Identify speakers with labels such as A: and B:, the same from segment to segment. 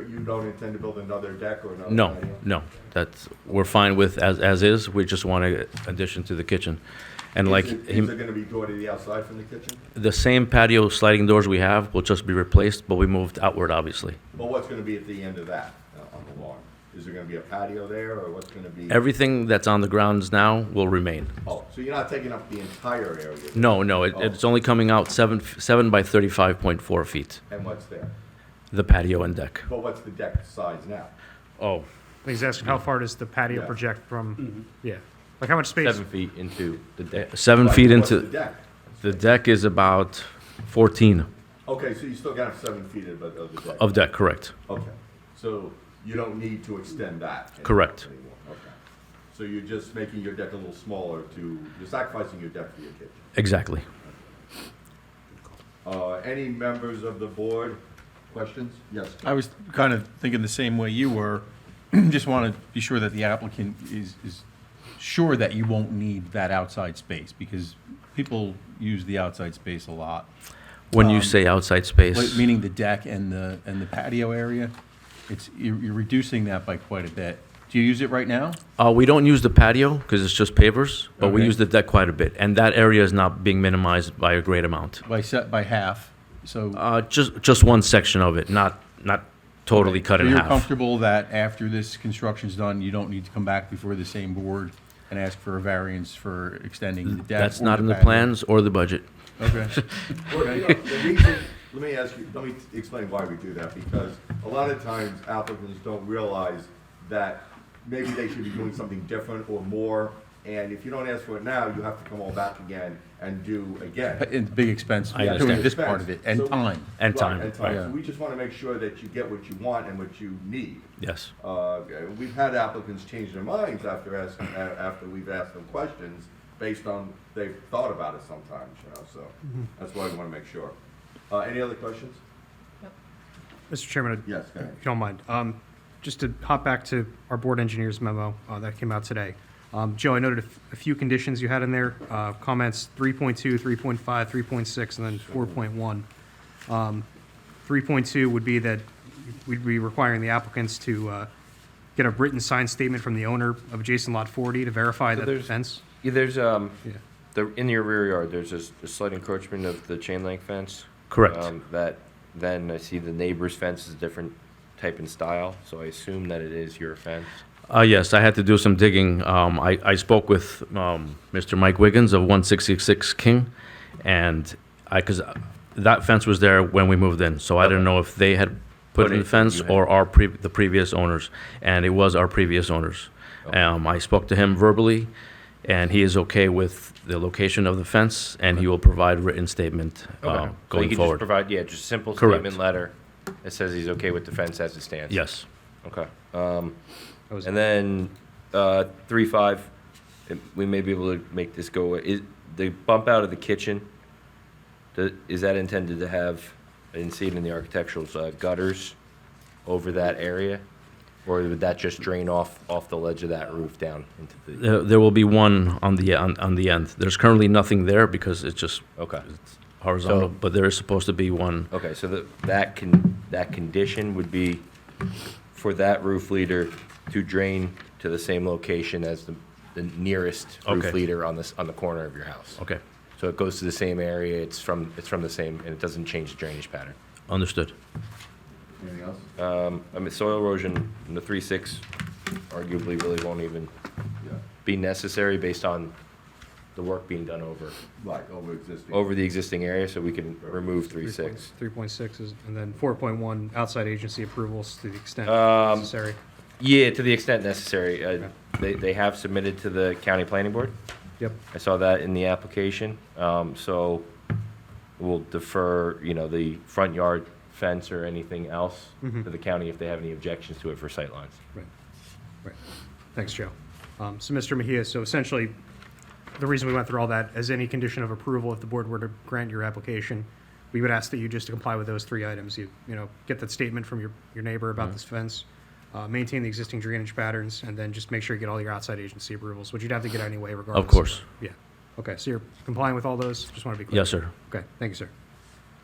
A: you don't intend to build another deck or another?
B: No,
A: patio?
B: no, that's, we're fine with as, as is, we just want an addition to the kitchen. And like,
A: Is it-
B: him-
A: Is it gonna be door to the outside from the kitchen?
B: the same patio sliding doors we have will just be replaced, but we moved outward, obviously.
A: Well, what's gonna be at the end of that, uh, on the lawn? Is there gonna be a patio there, or what's gonna be?
B: Everything that's on the grounds now will remain.
A: Oh, so you're not taking up the entire area?
B: No, no, it, it's only coming out seven, f- seven by thirty-five point four feet,
A: And what's there?
B: the patio and deck.
A: But what's the deck size now?
B: Oh,
C: He's asking how far does the patio
A: Yeah.
C: project from, yeah, like how much space?
D: Mm-hmm. Seven feet into the deck.
B: seven feet
A: What's the
B: into,
A: deck?
B: the deck is about fourteen
A: Okay, so you still got seven feet of, of the deck?
B: of deck, correct?
A: Okay, so you don't need to extend that? any-
B: Correct.
A: anymore, Okay. So you're just making your deck a little smaller to, you're sacrificing your deck for your kitchen?
B: Exactly.
A: Uh, any members of the board, questions? Yes.
E: I was kind of thinking the same way you were. Just want to be sure that the applicant is, is sure that you won't need that outside space because people use the outside space a lot.
B: When you say outside space.
E: Like, Meaning the deck and the, and the patio area. It's, you're, you're reducing that by quite a bit. Do you use it right now?
B: Uh, we don't use the patio because it's just pavers, but we
E: Okay.
B: use the deck quite a bit, and that area is not being minimized by a great amount.
E: By set, by half, so.
B: Uh, just just one section of it, not not totally cut
E: So
B: in
E: you're
B: half.
E: comfortable that after this construction's done, you don't need to come back before the same board and ask for a variance for extending the deck?
B: Mm, That's
E: or
B: not in the
E: patio?
B: plans or the budget.
E: Okay.
A: Well, you know, the reason- Let me ask you, let me explain why we do that, because a lot of times applicants don't realize that maybe they should be doing something different or more, and if you don't ask for it now, you have to come all back again and do again.
E: It's a big expense,
B: I
E: doing
B: understand.
E: this part of it,
A: So
E: and
A: we-
E: time.
B: And
A: Right,
B: time,
A: And time,
E: right.
A: So we just wanna make sure that you get what you want and what you need.
B: Yes.
A: Uh, We've had applicants change their minds after asking, a- after we've asked them questions based on, they've thought about it sometimes, you know, so that's why we want to make sure. Uh, Any other questions?
C: Mr. Chairman,
A: Yes, go ahead.
C: if you don't mind, um, just to hop back to our board engineer's memo, uh, that came out today. Um, Joe, I noted a f- a few conditions you had in there, uh, comments 3.2, 3.5, 3.6, and then 4.1. Um, 3.2 would be that we'd be requiring the applicants to uh, get a written signed statement from the owner of adjacent lot 40 to verify
D: So
C: that the
D: there's-
C: fence.
D: Yeah, there's, um,
C: Yeah.
D: the, in your rear yard, there's a s- a slight encroachment of the chain link fence.
B: Correct.
E: Uh,
D: Um, That, then I see the neighbor's fence is a different type and style, so I assume that it is your fence.
B: Uh, yes, I had to do some digging. Um, I, I spoke with um, Mr. Mike Wiggins of 166 King, and I because that fence was there when we moved in, so I don't know if they had put
D: Put
B: in
D: it-
B: the fence
D: you had-
B: or our pre- the previous owners, and it was our previous owners.
D: Okay.
B: Um, I spoke to him verbally, and he is okay with the location of the fence, and he will provide written statement uh,
D: Um, So you
B: going
D: could just
B: forward.
D: provide, yeah, just simple
B: Correct.
D: statement letter that says he's okay with the fence as it stands.
B: yes.
D: Okay. Um,
C: That was-
D: and then, uh, three, five, it- we may be able to make this go, away. is, the bump out of the kitchen, the- is that intended to have, I didn't see it in the architecturals, uh, gutters over that area? Or would that just drain off, off the ledge of that roof down into the,
B: There, there will be one on the on, on the end. There's currently nothing there because it's just
D: okay.
B: horizontal, but there is supposed to be one.
D: Okay, so that, that can, that condition would be for that roof leader to drain to the same location as the, the nearest
B: Okay.
D: roof leader on this, on the corner of your house.
B: Okay,
D: So it goes to the same area, it's from, it's from the same, and it doesn't change the drainage pattern.
B: understood.
A: Anything else?
D: Um, I mean, soil erosion, in the three six arguably really won't even
A: Yeah,
D: be necessary based on the work being done over,
A: Right, over existing.
D: over the existing area, so we can remove three six.
C: 3.6 is, and then 4.1, outside agency approvals to the extent
D: Um,
C: necessary.
D: Yeah, to the extent necessary. Uh, They, they have submitted to the county planning board.
C: Yep.
D: I saw that in the application. Um, So we'll defer, you know, the front yard fence or anything else to
C: Mhm.
D: the county if they have any objections to it for sightlines.
C: Right, right. Thanks, Joe. Um, So, Mr. Mejia, so essentially, the reason we went through all that, as any condition of approval, if the board were to grant your application, we would ask that you just comply with those three items. You, you know, get that statement from your, your neighbor about this fence, uh, maintain the existing drainage patterns, and then just make sure you get all your outside agency approvals, which you'd have to get anyway regardless.
B: Of course.
C: Yeah. Okay, so you're complying with all those? Just want to be clear.
B: Yes, sir.
C: Okay, thank you, sir.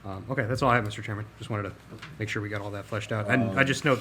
C: Um, Okay, that's all I have, Mr. Chairman. Just wanted to make sure we got all that fleshed out. And I just note